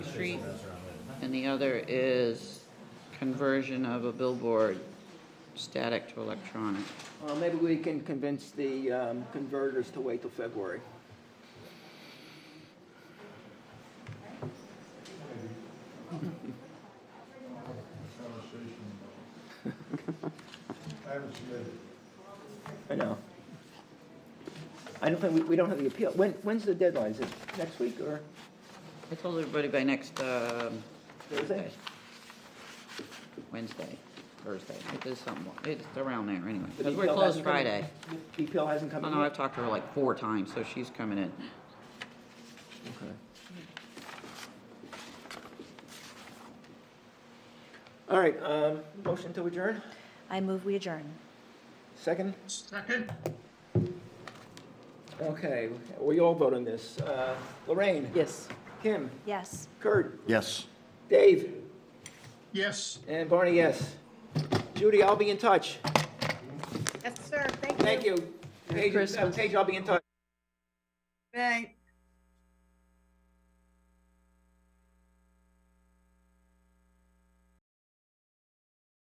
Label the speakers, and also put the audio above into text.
Speaker 1: Street, and the other is conversion of a billboard, static to electronic.
Speaker 2: Well, maybe we can convince the um, converters to wait till February.
Speaker 3: Conversation. I haven't submitted.
Speaker 2: I know. I don't think, we, we don't have the appeal. When, when's the deadline? Is it next week or
Speaker 1: I told everybody by next, um,
Speaker 2: Thursday?
Speaker 1: Wednesday, Thursday, it is somewhat, it's around there anyway,
Speaker 2: The
Speaker 1: because we're
Speaker 2: appeal
Speaker 1: closed
Speaker 2: hasn't come in-
Speaker 1: Friday. Uh-huh.
Speaker 2: The appeal hasn't come
Speaker 1: I
Speaker 2: in
Speaker 1: know, I've
Speaker 2: yet?
Speaker 1: talked to her like four times, so she's coming in.
Speaker 2: Okay. All right, um, motion to adjourn?
Speaker 4: I move we adjourn.
Speaker 2: Second? Second. Okay, we all vote on this. Uh, Lorraine?
Speaker 5: Yes.
Speaker 2: Kim?
Speaker 4: Yes.
Speaker 2: Kurt?
Speaker 6: Yes.
Speaker 2: Dave?
Speaker 3: Yes.
Speaker 2: And Barney, yes. Judy, I'll be in touch.
Speaker 7: Yes, sir, thank you.
Speaker 2: Thank you. Paige, uh,
Speaker 5: Christmas.
Speaker 2: Paige, I'll be in touch.
Speaker 7: Bye.